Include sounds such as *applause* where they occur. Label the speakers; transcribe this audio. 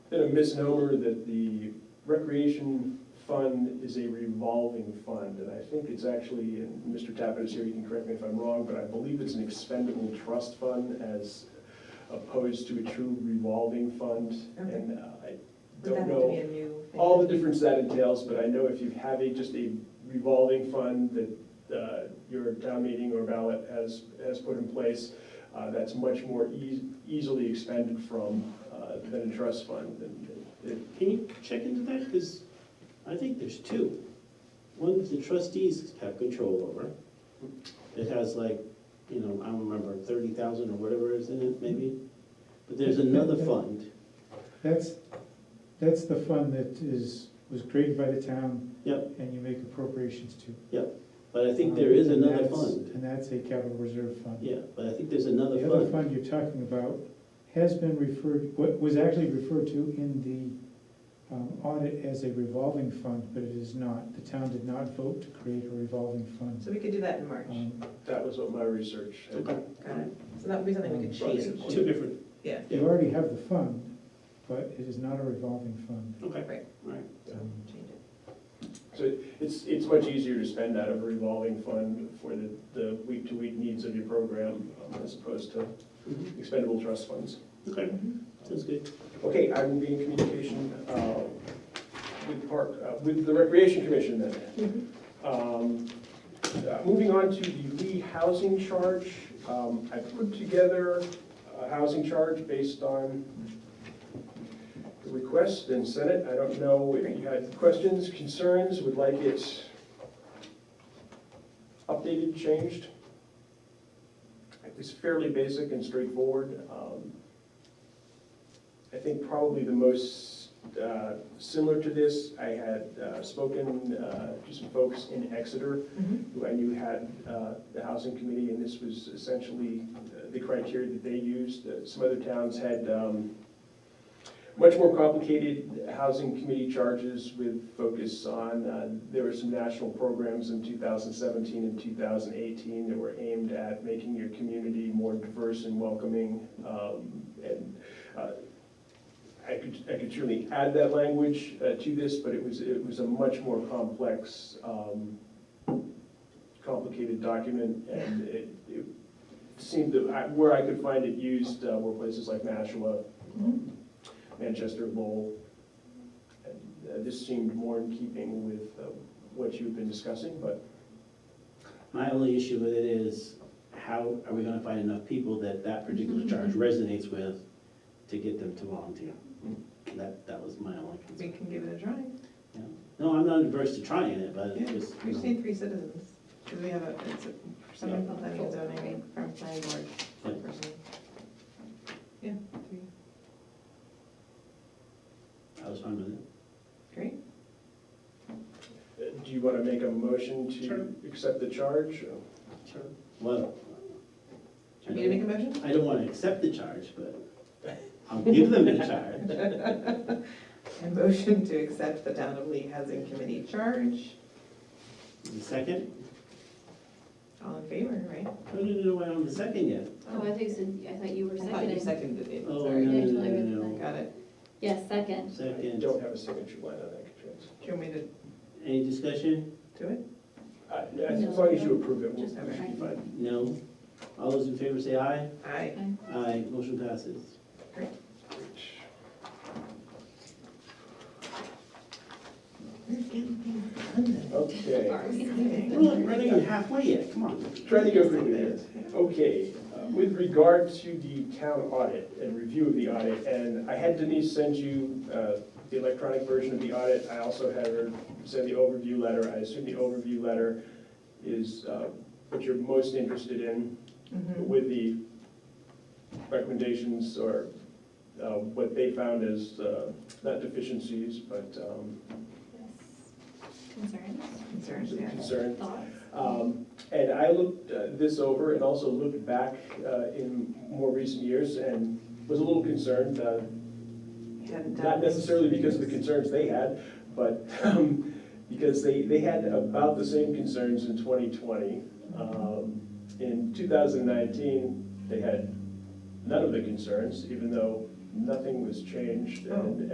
Speaker 1: misnomer that the recreation fund is a revolving fund, and I think it's actually, and Mr. Tappan is here, you can correct me if I'm wrong, but I believe it's an expendable trust fund as opposed to a true revolving fund,
Speaker 2: Okay.
Speaker 1: and uh, I
Speaker 2: Would that
Speaker 1: don't
Speaker 2: have to be
Speaker 1: know
Speaker 2: a new thing?
Speaker 1: all the difference that entails, but I know if you have a, just a revolving fund that uh, your town meeting or ballot has, has put in place, uh, that's much more eas- easily expended from uh, than a trust fund, and it
Speaker 3: Can you check into that? Because I think there's two. One that the trustees have control over. It has like, you know, I don't remember, thirty thousand or whatever is in it, maybe? But there's another fund.
Speaker 4: That's, that's the fund that is, was created by the town.
Speaker 3: Yep.
Speaker 4: And you make appropriations to.
Speaker 3: But I think there is
Speaker 4: Um, and
Speaker 3: another
Speaker 4: that's-
Speaker 3: fund.
Speaker 4: And that's a capital reserve fund.
Speaker 3: Yeah, but I think there's another
Speaker 4: The other
Speaker 3: fund.
Speaker 4: fund you're talking about has been referred, what was actually referred to in the um, audit as a revolving fund, but it is not. The town did not vote to create a revolving fund.
Speaker 2: So we could do that in March.
Speaker 4: Um,
Speaker 1: that was what my research. had.
Speaker 3: Okay,
Speaker 2: Got it. So that would be something we could
Speaker 1: Right.
Speaker 2: change.
Speaker 3: Two different,
Speaker 2: Yeah.
Speaker 4: You already have the fund, but it is not a revolving fund.
Speaker 3: okay,
Speaker 2: Right.
Speaker 3: all right.
Speaker 2: So
Speaker 4: Um,
Speaker 2: change it.
Speaker 1: So it's, it's much easier to spend out of a revolving fund for the, the week-to-week needs of your program um, as opposed to
Speaker 3: Mhm.
Speaker 1: expendable trust funds.
Speaker 3: Okay, sounds good.
Speaker 1: Okay, I will be in communication uh, with Park, uh, with the Recreation Commission then.
Speaker 2: Mm-hmm.
Speaker 1: Um, uh, Moving on to the Lee Housing Charge, um, I put together a housing charge based on the request and Senate. I don't know if you had questions, concerns, would like it updated, changed. It's fairly basic and straightforward. Um, I think probably the most uh, similar to this, I had uh, spoken uh, to some folks in Exeter
Speaker 2: Mhm.
Speaker 1: who I knew had uh, the housing committee, and this was essentially uh, the criteria that they used. Uh, Some other towns had um, much more complicated housing committee charges with focus on, uh, there were some national programs in 2017 and 2018 that were aimed at making your community more diverse and welcoming. um, And uh, I could, I could surely add that language uh, to this, but it was, it was a much more complex um, complicated document, and it it seemed that, I- where I could find it used uh, were places like Nashua,
Speaker 2: Mhm.
Speaker 1: Manchester, Lowell. And, uh, This seemed more in keeping with uh, what you've been discussing, but
Speaker 3: My only issue with it is, how are we gonna find enough people that that
Speaker 4: *laughs*
Speaker 3: particular charge resonates with to get them to volunteer? That, that was my only
Speaker 2: We
Speaker 3: concern.
Speaker 2: can give it a try.
Speaker 3: Yeah. No, I'm not adverse to trying it, but
Speaker 2: Yeah,
Speaker 3: it's just,
Speaker 2: We
Speaker 3: you
Speaker 2: just
Speaker 3: know,
Speaker 2: need three citizens, because we have a, it's a, someone from planning and zoning, from planning board, one person. Yeah, three.
Speaker 3: I was fine with it.
Speaker 2: Great.
Speaker 1: uh, do you want to make a motion
Speaker 3: Sure.
Speaker 1: to accept the charge?
Speaker 3: Sure. Well. I
Speaker 2: Do you want me to
Speaker 3: don't-
Speaker 2: make a motion?
Speaker 3: I don't wanna accept the charge, but I'll give them a charge.
Speaker 2: A motion to accept the Town of Lee Housing Committee charge.
Speaker 3: The second?
Speaker 2: All in favor, right?
Speaker 3: No, no, no, no, I'm the second yet.
Speaker 5: Oh, I think, you said- I thought you were
Speaker 2: I thought you
Speaker 5: seconding.
Speaker 2: seconded it,
Speaker 3: Oh,
Speaker 2: sorry.
Speaker 3: no, no, no,
Speaker 5: Sorry.
Speaker 3: no, no.
Speaker 2: Got it.
Speaker 5: Yes, second.
Speaker 1: I
Speaker 3: Second.
Speaker 1: don't have a signature line on that, Katrina.
Speaker 2: Do you want me to
Speaker 3: Any discussion?
Speaker 2: do it?
Speaker 1: Uh, As as long as you approve it, we'll
Speaker 5: Just-
Speaker 1: we should be fine.
Speaker 3: No? All those in favor say aye?
Speaker 2: Aye.
Speaker 3: Aye, motion passes.
Speaker 2: We're getting things done then.
Speaker 1: Okay.
Speaker 3: We're not running even halfway yet, come on.
Speaker 1: Trying to go through this. Okay, uh, with regard to the town audit and review of the audit, and I had Denise send you uh, the electronic version of the audit. I also had her send the overview letter. I assume the overview letter is uh, what you're most interested in
Speaker 2: Mhm.
Speaker 1: with the recommendations or uh, what they found as uh, not deficiencies, but um,
Speaker 5: Concerns,
Speaker 2: Concerns, yeah.
Speaker 1: concerns.
Speaker 5: thoughts?
Speaker 1: Um, And I looked uh, this over and also looked back uh, in more recent years and was a little concerned, uh,
Speaker 2: Hadn't done
Speaker 1: not
Speaker 2: this.
Speaker 1: necessarily because of the concerns they had, but um, because they, they had about the same concerns in 2020. Um, In 2019, they had none of the concerns, even though nothing was changed and